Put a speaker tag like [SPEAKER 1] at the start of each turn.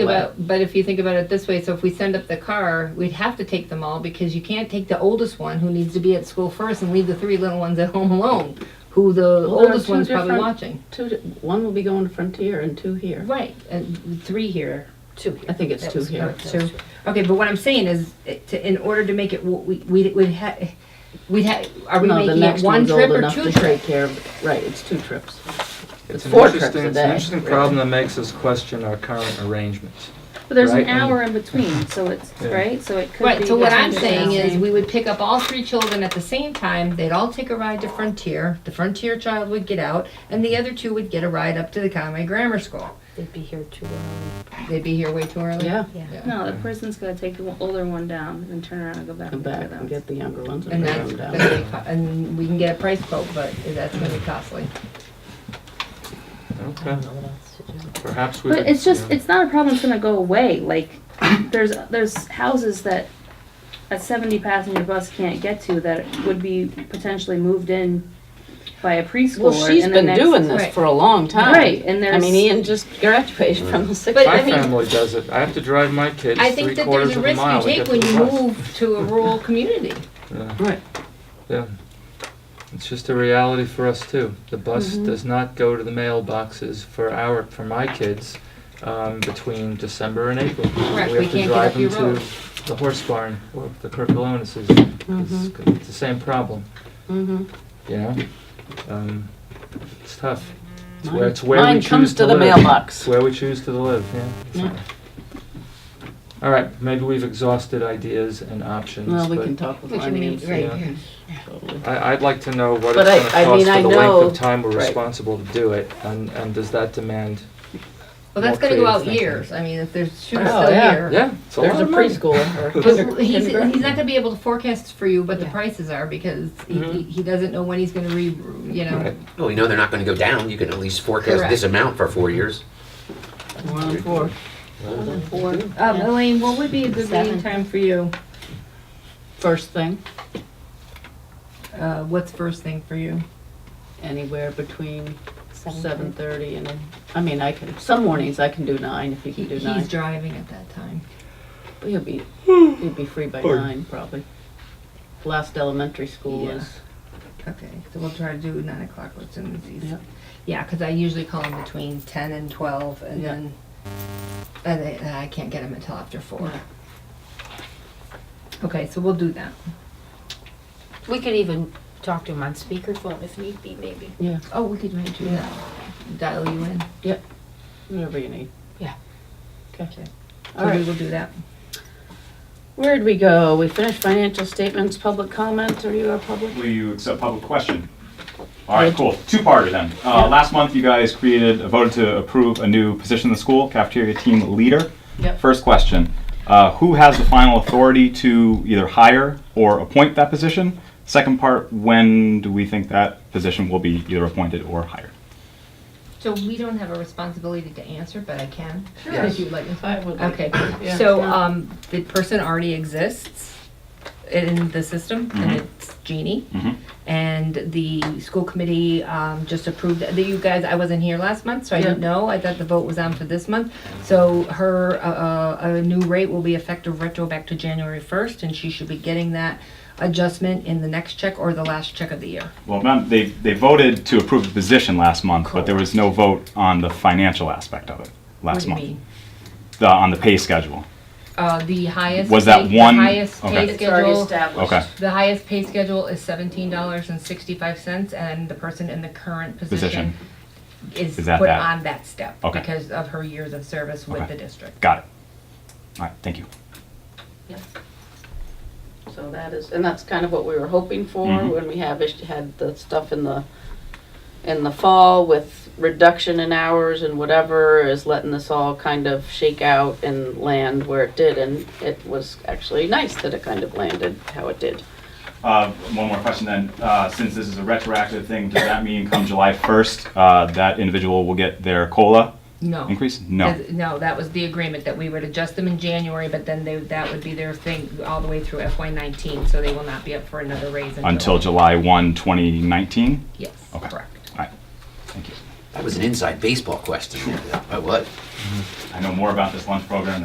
[SPEAKER 1] about, but if you think about it this way, so if we send up the car, we'd have to take them all because you can't take the oldest one who needs to be at school first and leave the three little ones at home alone, who the
[SPEAKER 2] Well, there are
[SPEAKER 1] oldest
[SPEAKER 2] two
[SPEAKER 1] one's probably
[SPEAKER 2] different-
[SPEAKER 1] watching.
[SPEAKER 2] Two, one will be going to Frontier and two here.
[SPEAKER 1] Right, and three here.
[SPEAKER 3] Two here.
[SPEAKER 2] I think it's
[SPEAKER 3] That
[SPEAKER 2] two
[SPEAKER 3] was-
[SPEAKER 2] here.
[SPEAKER 3] that was
[SPEAKER 1] So, okay, but what I'm saying is, it- to, in order to make it, w- we, we, we'd ha, we'd ha, are we
[SPEAKER 2] No, the
[SPEAKER 1] making it
[SPEAKER 2] next
[SPEAKER 1] one
[SPEAKER 2] one's
[SPEAKER 1] trip
[SPEAKER 2] old
[SPEAKER 1] or
[SPEAKER 2] enough
[SPEAKER 1] two
[SPEAKER 2] to
[SPEAKER 1] trips?
[SPEAKER 2] take care of, right, it's two trips.
[SPEAKER 4] It's an
[SPEAKER 2] four trips
[SPEAKER 4] interesting,
[SPEAKER 2] a
[SPEAKER 4] it's an
[SPEAKER 2] day,
[SPEAKER 4] interesting
[SPEAKER 2] really.
[SPEAKER 4] problem that makes us question our current arrangements.
[SPEAKER 5] But there's an
[SPEAKER 4] Right, and-
[SPEAKER 5] hour in between, so it's,
[SPEAKER 4] Yeah.
[SPEAKER 5] right, so it could be.
[SPEAKER 1] Right, so what I'm
[SPEAKER 5] between
[SPEAKER 1] saying
[SPEAKER 5] the
[SPEAKER 1] is,
[SPEAKER 5] same-
[SPEAKER 1] we would pick up all three children at the same time, they'd all take a ride to Frontier, the Frontier child would get out, and the other two would get a ride up to the Conway Grammar School.
[SPEAKER 3] They'd be here too early.
[SPEAKER 1] They'd be here way too early.
[SPEAKER 2] Yeah,
[SPEAKER 5] No, the person's gonna take the older one down and then turn around and go back.
[SPEAKER 2] come
[SPEAKER 5] and pick
[SPEAKER 2] back
[SPEAKER 5] it
[SPEAKER 2] and
[SPEAKER 5] up.
[SPEAKER 2] get the younger ones and
[SPEAKER 1] And
[SPEAKER 2] bring
[SPEAKER 1] that's
[SPEAKER 2] them
[SPEAKER 1] gonna
[SPEAKER 2] down.
[SPEAKER 1] be, co- and we can get a price quote, but that's gonna be costly.
[SPEAKER 3] I
[SPEAKER 4] Okay,
[SPEAKER 3] don't know what else to do.
[SPEAKER 4] perhaps we.
[SPEAKER 5] But
[SPEAKER 4] could-
[SPEAKER 5] it's just,
[SPEAKER 4] yeah.
[SPEAKER 5] it's not a problem that's gonna go away, like, there's, there's houses that a seventy passenger bus can't get to that would be potentially moved in by a
[SPEAKER 2] Well,
[SPEAKER 5] preschooler.
[SPEAKER 2] she's
[SPEAKER 5] in the
[SPEAKER 2] been
[SPEAKER 5] next-
[SPEAKER 2] doing
[SPEAKER 1] Right.
[SPEAKER 2] this for a long time.
[SPEAKER 5] Right, and
[SPEAKER 2] I
[SPEAKER 5] there's.
[SPEAKER 2] mean, Ian just graduated from the sixth.
[SPEAKER 1] But
[SPEAKER 4] My
[SPEAKER 1] I mean-
[SPEAKER 4] family does it. I have to drive my kids
[SPEAKER 1] I
[SPEAKER 4] three
[SPEAKER 1] think that there's
[SPEAKER 4] quarters
[SPEAKER 1] a
[SPEAKER 4] of a
[SPEAKER 1] risk you
[SPEAKER 4] mile to
[SPEAKER 1] take
[SPEAKER 4] get to
[SPEAKER 1] when you
[SPEAKER 4] the bus.
[SPEAKER 1] move to a rural community.
[SPEAKER 4] Yeah,
[SPEAKER 2] Right.
[SPEAKER 4] yeah. It's just a reality for us too. The bus
[SPEAKER 1] Mm-hmm.
[SPEAKER 4] does not go to the mailboxes for our, for my kids, um, between December and April.
[SPEAKER 1] Correct, we
[SPEAKER 4] We have to
[SPEAKER 1] can't get up
[SPEAKER 4] drive
[SPEAKER 1] your
[SPEAKER 4] them
[SPEAKER 1] road. Mm-hmm.
[SPEAKER 4] to the horse barn or the Kirkilonis's. It's, it's the same problem,
[SPEAKER 2] Mm-hmm.
[SPEAKER 4] you know? Um, it's tough. It's
[SPEAKER 2] Mine-
[SPEAKER 4] where, it's where we
[SPEAKER 2] mine
[SPEAKER 4] choose to live.
[SPEAKER 2] comes to the mailbox.
[SPEAKER 4] It's where we choose to live, yeah.
[SPEAKER 2] Yeah.
[SPEAKER 4] All right, maybe we've exhausted ideas and options,
[SPEAKER 2] Well, we
[SPEAKER 4] but
[SPEAKER 2] can talk with
[SPEAKER 3] We can meet
[SPEAKER 2] finance.
[SPEAKER 4] right
[SPEAKER 3] right
[SPEAKER 4] yeah.
[SPEAKER 3] here.
[SPEAKER 2] Totally.
[SPEAKER 4] I, I'd like to know what
[SPEAKER 2] But
[SPEAKER 4] it's
[SPEAKER 2] I-
[SPEAKER 4] gonna
[SPEAKER 2] I
[SPEAKER 4] cost
[SPEAKER 2] mean, I
[SPEAKER 4] for the length
[SPEAKER 2] know-
[SPEAKER 4] of time we're
[SPEAKER 2] right.
[SPEAKER 4] responsible to do it, and, and does that demand,
[SPEAKER 1] Well, that's
[SPEAKER 4] More
[SPEAKER 1] gonna go out
[SPEAKER 4] creative thinking.
[SPEAKER 1] years, I mean, if there's shoes
[SPEAKER 2] Oh,
[SPEAKER 1] still
[SPEAKER 2] yeah.
[SPEAKER 1] here.
[SPEAKER 4] yeah, it's a
[SPEAKER 2] There's
[SPEAKER 4] lot
[SPEAKER 2] a
[SPEAKER 4] of money.
[SPEAKER 2] preschooler or a
[SPEAKER 1] Because
[SPEAKER 2] kinder-
[SPEAKER 1] he's, he's
[SPEAKER 2] kindergarten.
[SPEAKER 1] not gonna be able to forecast for you what the
[SPEAKER 3] Yeah.
[SPEAKER 1] prices are because he,
[SPEAKER 4] Mhm.
[SPEAKER 1] he- he doesn't know when he's gonna re, you know.
[SPEAKER 4] Right.
[SPEAKER 6] Well, we know they're not going to go down. You can at least forecast
[SPEAKER 1] Correct.
[SPEAKER 6] this amount for four years.
[SPEAKER 2] One on four.
[SPEAKER 3] Four.
[SPEAKER 1] Um, Elaine, what would be a good meeting
[SPEAKER 3] Seven.
[SPEAKER 1] time for you?
[SPEAKER 2] First thing,
[SPEAKER 1] Uh, what's first thing for you?
[SPEAKER 2] anywhere between
[SPEAKER 3] Seven.
[SPEAKER 2] seven thirty and, I mean, I can, some mornings I can do nine if you
[SPEAKER 1] He,
[SPEAKER 2] can do
[SPEAKER 1] he's
[SPEAKER 2] nine.
[SPEAKER 1] driving at that time.
[SPEAKER 2] He'll be, he'll be free by nine probably. Last elementary school
[SPEAKER 1] Yeah.
[SPEAKER 2] is,
[SPEAKER 1] Okay, so we'll try to do nine o'clock as soon as he's.
[SPEAKER 2] Yep.
[SPEAKER 1] Yeah, because I usually call him between ten and twelve, and
[SPEAKER 2] Yeah.
[SPEAKER 1] then and I, and I can't get him until after four. Okay, so we'll do that.
[SPEAKER 3] We could even talk to him on speakerphone if need be, maybe.
[SPEAKER 2] yeah,
[SPEAKER 1] Oh, we could maybe do that. Dial you in.
[SPEAKER 2] whatever you need.
[SPEAKER 3] Yeah.
[SPEAKER 2] Okay.
[SPEAKER 1] So
[SPEAKER 2] All
[SPEAKER 1] we
[SPEAKER 2] right,
[SPEAKER 1] will do that.
[SPEAKER 2] where'd we go? We finished financial statements, public comments, are you our public?
[SPEAKER 7] Will you accept public question? All right,
[SPEAKER 2] Yeah.
[SPEAKER 7] cool. Two-parter then. Uh, Last month, you guys created, uh, voted to approve a new position in the school, cafeteria team leader.
[SPEAKER 2] Yep.
[SPEAKER 7] First question, uh, who has the final authority to either hire or appoint that position? Second part, when do we think that position will be either appointed or hired?
[SPEAKER 1] So we don't have a responsibility to answer, but I can. Sure. If you'd like me to.
[SPEAKER 2] I would like-
[SPEAKER 1] Okay,
[SPEAKER 2] Yeah.
[SPEAKER 1] so, um, the person already exists in the system, and it's Jeannie.
[SPEAKER 7] Mhm.
[SPEAKER 1] And the school committee, um, just approved, that you guys, I wasn't here last month, so I didn't
[SPEAKER 2] Yeah.
[SPEAKER 1] know, I thought the vote was on for this month. So her, uh, uh, a new rate will be effective retro back to January first, and she should be getting that adjustment in the next check or the last check of the year.
[SPEAKER 7] Well, ma'am, they, they voted to approve the position last month, but there was no vote on the financial aspect of it
[SPEAKER 1] What
[SPEAKER 7] last
[SPEAKER 1] do you
[SPEAKER 7] month.
[SPEAKER 1] mean?
[SPEAKER 7] The- On the pay schedule.
[SPEAKER 1] Uh, the highest.
[SPEAKER 7] Was that
[SPEAKER 1] pay- the
[SPEAKER 7] one-
[SPEAKER 1] highest
[SPEAKER 7] okay.
[SPEAKER 1] pay
[SPEAKER 7] It's
[SPEAKER 1] schedule.
[SPEAKER 7] Okay.
[SPEAKER 1] The highest pay schedule is seventeen dollars and sixty-five cents, and the person in the current position
[SPEAKER 7] Position.
[SPEAKER 1] is
[SPEAKER 7] Is that
[SPEAKER 1] put
[SPEAKER 7] that?
[SPEAKER 1] on that step
[SPEAKER 7] Okay.
[SPEAKER 1] because of her years of service with
[SPEAKER 7] Okay.
[SPEAKER 1] the district.
[SPEAKER 7] Got it. All right, thank you.
[SPEAKER 2] So that is, and that's kind of what we were hoping for
[SPEAKER 7] Mhm.
[SPEAKER 2] when we have, ish- had the stuff in the, in the fall with reduction in hours and whatever is letting this all kind of shake out and land where it did. And it was actually nice that it kind of landed how it did.
[SPEAKER 7] Uh, One more question then. Uh, Since this is a retroactive thing, does that mean come July 1st, uh, that individual will get their COLA
[SPEAKER 1] No.
[SPEAKER 7] increase? No.
[SPEAKER 1] As- No, that was the agreement that we would adjust them in January, but then they, that would be their thing all the way through FY nineteen, so they will not be up for another raise until.
[SPEAKER 7] Until July 1, 2019?
[SPEAKER 1] Yes,
[SPEAKER 7] Okay.
[SPEAKER 1] correct.
[SPEAKER 7] All right. Thank you.
[SPEAKER 8] That was an inside baseball question. I was.
[SPEAKER 6] I know more about this lunch program than